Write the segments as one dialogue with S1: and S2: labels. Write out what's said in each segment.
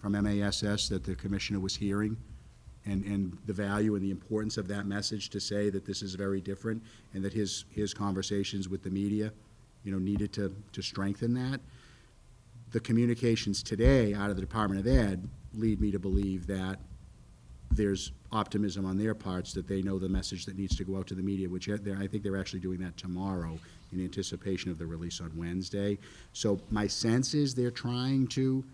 S1: from MASs that the commissioner was hearing, and, and the value and the importance of that message to say that this is very different, and that his, his conversations with the media, you know, needed to, to strengthen that. The communications today out of the Department of Ed lead me to believe that there's optimism on their parts that they know the message that needs to go out to the media, which they're- I think they're actually doing that tomorrow in anticipation of the release on Wednesday. So my sense is they're trying to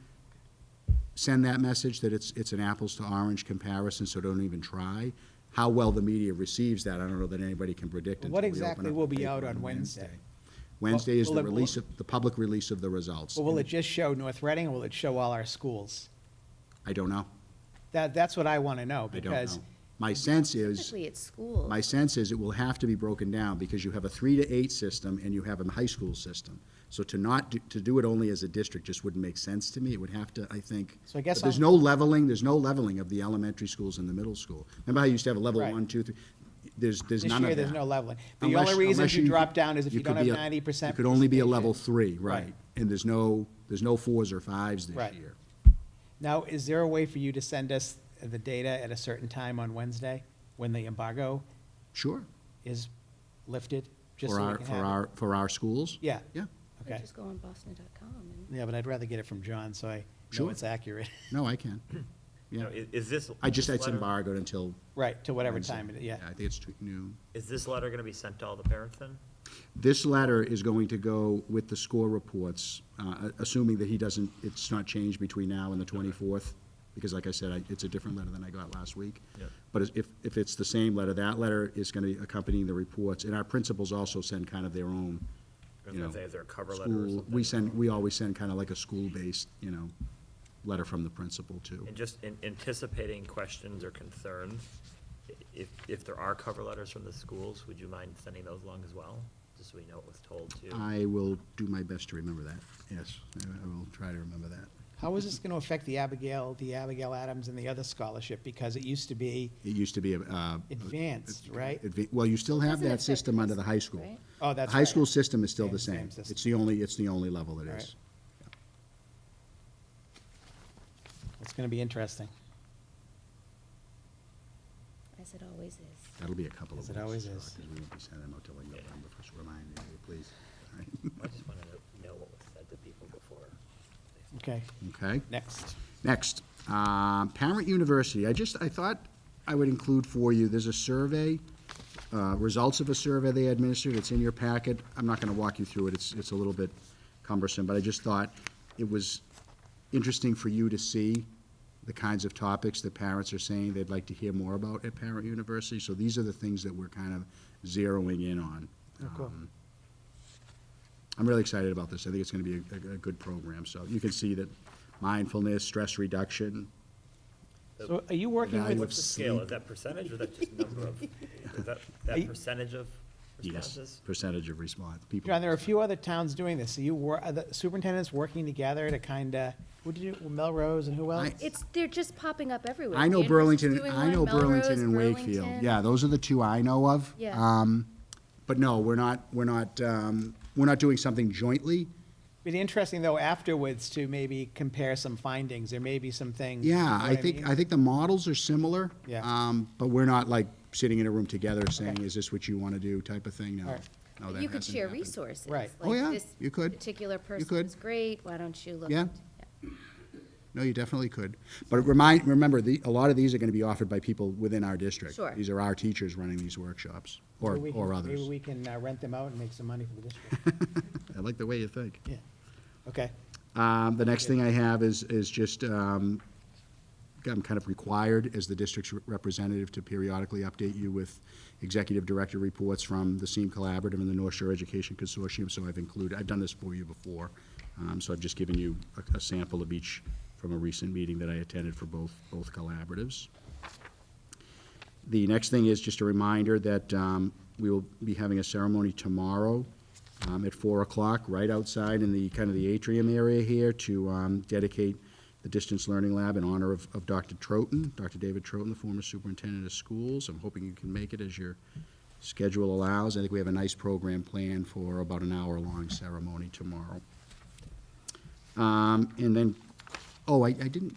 S1: send that message that it's, it's an apples to orange comparison, so don't even try. How well the media receives that, I don't know that anybody can predict until
S2: What
S1: we open
S2: exactly
S1: up
S2: will
S1: the
S2: be
S1: paper
S2: out on Wednesday?
S1: Wednesday is
S2: Will
S1: the
S2: it- will-
S1: release of, the public release of the results.
S2: Or will it just show North Reading, or will it show all our schools?
S1: I don't know.
S2: That, that's what I want to know,
S1: I don't know.
S2: because
S1: My sense is.
S3: Typically, it's school.
S1: My sense is it will have to be broken down, because you have a three to eight system and you have a high school system. So to not, do- to do it only as a district just wouldn't make sense to me, it would have to, I think.
S2: So I guess
S1: but There's
S2: I'm-
S1: no leveling, there's no leveling of the elementary schools and the middle school. Remember how you used to have a level
S2: Right.
S1: one, two, three? There's, there's
S2: This
S1: none of that.
S2: year, there's no leveling. The
S1: Unless-
S2: only reason
S1: unless
S2: you drop down is if you
S1: could
S2: don't have
S1: be a-
S2: 90%
S1: You could only be a level three,
S2: participation.
S1: right,
S2: Right.
S1: and there's no, there's no fours or fives this
S2: Right.
S1: year.
S2: now, is there a way for you to send us the data at a certain time on Wednesday, when the embargo
S1: Sure,
S2: is lifted? just
S1: for
S2: so we
S1: our,
S2: can
S1: for
S2: have it?
S1: our, for our schools?
S2: Yeah,
S1: Yeah,
S3: Or
S2: okay.
S3: just go on boston.com and.
S2: Yeah, but I'd rather get it from John, so I know
S1: Sure.
S2: it's accurate.
S1: no, I can, yeah.
S4: Now, i- Is this?
S1: I just,
S4: this
S1: it's
S4: letter-
S1: embargoed until
S2: Right, to whatever
S1: Wednesday.
S2: time, it- yeah.
S1: I think it's tw- noon.
S4: Is this letter going to be sent to all the parents then?
S1: This letter is going to go with the score reports, uh, assuming that he doesn't, it's not changed between now and the 24th, because like I said, I- it's a different letter than I got last week.
S4: Yeah.
S1: But if, if it's the same letter, that letter is going to be accompanying the reports, and our principals also send kind of their own,
S4: I was
S1: you know.
S4: gonna say, is there a cover letter or
S1: school-
S4: something?
S1: We send, we always send kind of like a school-based, you know, letter from the principal, too.
S4: And just in anticipating questions or concerns, i- if, if there are cover letters from the schools, would you mind sending those along as well? Just so we know what was told to.
S1: I will do my best to remember that, yes, I I will try to remember that.
S2: How is this going to affect the Abigail, the Abigail Adams and the other scholarship? Because it used to be,
S1: It used to be a. uh,
S2: Advanced, right?
S1: adva- Well, you still have
S3: Doesn't
S1: that
S3: affect
S1: system
S3: high
S1: under the high
S3: school,
S1: school.
S3: right?
S2: Oh, that's
S1: The High
S2: right.
S1: school system is still the
S2: Same-
S1: same.
S2: same system.
S1: It's the only, it's the only level it
S2: All
S1: is.
S2: it's going to be interesting,
S3: As it always is.
S1: That'll be a couple of
S2: As
S1: weeks.
S2: it always
S1: Sarah,
S2: is.
S1: 'cause we won't be sending them out till like November, just reminding you, please. All right.
S4: I just want to know what was said to people before.
S2: okay.
S1: Okay.
S2: Next.
S1: Next, um, Parent University. I just, I thought I would include for you, there's a survey, uh, results of a survey they administered. It's in your packet. I'm not going to walk you through it. It's, it's a little bit cumbersome, but I just thought it was interesting for you to see the kinds of topics that parents are saying they'd like to hear more about at Parent University. So these are the things that we're kind of zeroing in on.
S2: Oh, cool.
S1: Um, I'm really excited about this. I think it's going to be a, a- a good program. So you can see that mindfulness, stress reduction,
S2: So are you working
S1: Value
S2: with,
S1: of
S4: What's the scale? Is that percentage or that just number of, is that, that
S2: you-
S4: percentage of responses?
S1: yes, percentage of response, people.
S2: John, there are a few other towns doing this. Are you, wor- are the superintendents working together to kind of, what did you, Melrose and who else?
S1: I-
S3: It's, they're just popping up everywhere.
S1: I know
S3: Danvers is
S1: Burlington,
S3: doing
S1: I
S3: one,
S1: know Burlington
S3: Melrose,
S1: and Wakefield.
S3: Burlington.
S1: Yeah, those are the two I know of.
S3: Yeah.
S1: Um, But no, we're not, we're not, um, we're not doing something jointly.
S2: It'd be interesting, though, afterwards to maybe compare some findings. There may be some things. you know
S1: Yeah,
S2: what
S1: I think,
S2: mean?
S1: I think the models are similar.
S2: Yeah.
S1: um, But we're not like sitting in a room together saying,
S2: Okay.
S1: is this what you want to do type of thing,
S2: All
S1: no.
S2: right.
S1: No,
S3: But
S1: that
S3: You could
S1: hasn't
S3: share
S1: happened.
S3: resources.
S2: Right.
S1: Oh,
S3: like
S1: yeah,
S3: this
S1: you could.
S3: Particular
S1: could.
S3: person's great, why don't you look?
S1: Yeah.
S3: into-
S1: No, you definitely could. But remind, remember, the, a lot of these are going to be offered by people within our district.
S3: Sure.
S1: These are our teachers running these workshops, or,
S2: Maybe we can-
S1: or others.
S2: Maybe we can uh, rent them out and make some money for the district.
S1: I like the way you think.
S2: Yeah. Okay.
S1: Um, the next thing I have is, is just, um, I'm kind of required as the district's representative to periodically update you with executive director reports from the SEAM Collaborative and the North Shore Education Consortium, so I've included, I've done this for you before. Um, so I've just given you a, a sample of each from a recent meeting that I attended for both, both collaboratives. The next thing is just a reminder that um, we will be having a ceremony tomorrow um, at 4 o'clock, right outside in the, kind of the atrium area here, to um, dedicate the Distance Learning Lab in honor of of Dr. Troughton, Dr. David Troughton, the former superintendent of schools. I'm hoping you can make it as your schedule allows. I think we have a nice program planned for about an hour-long ceremony tomorrow. Um, And then, oh, I I didn't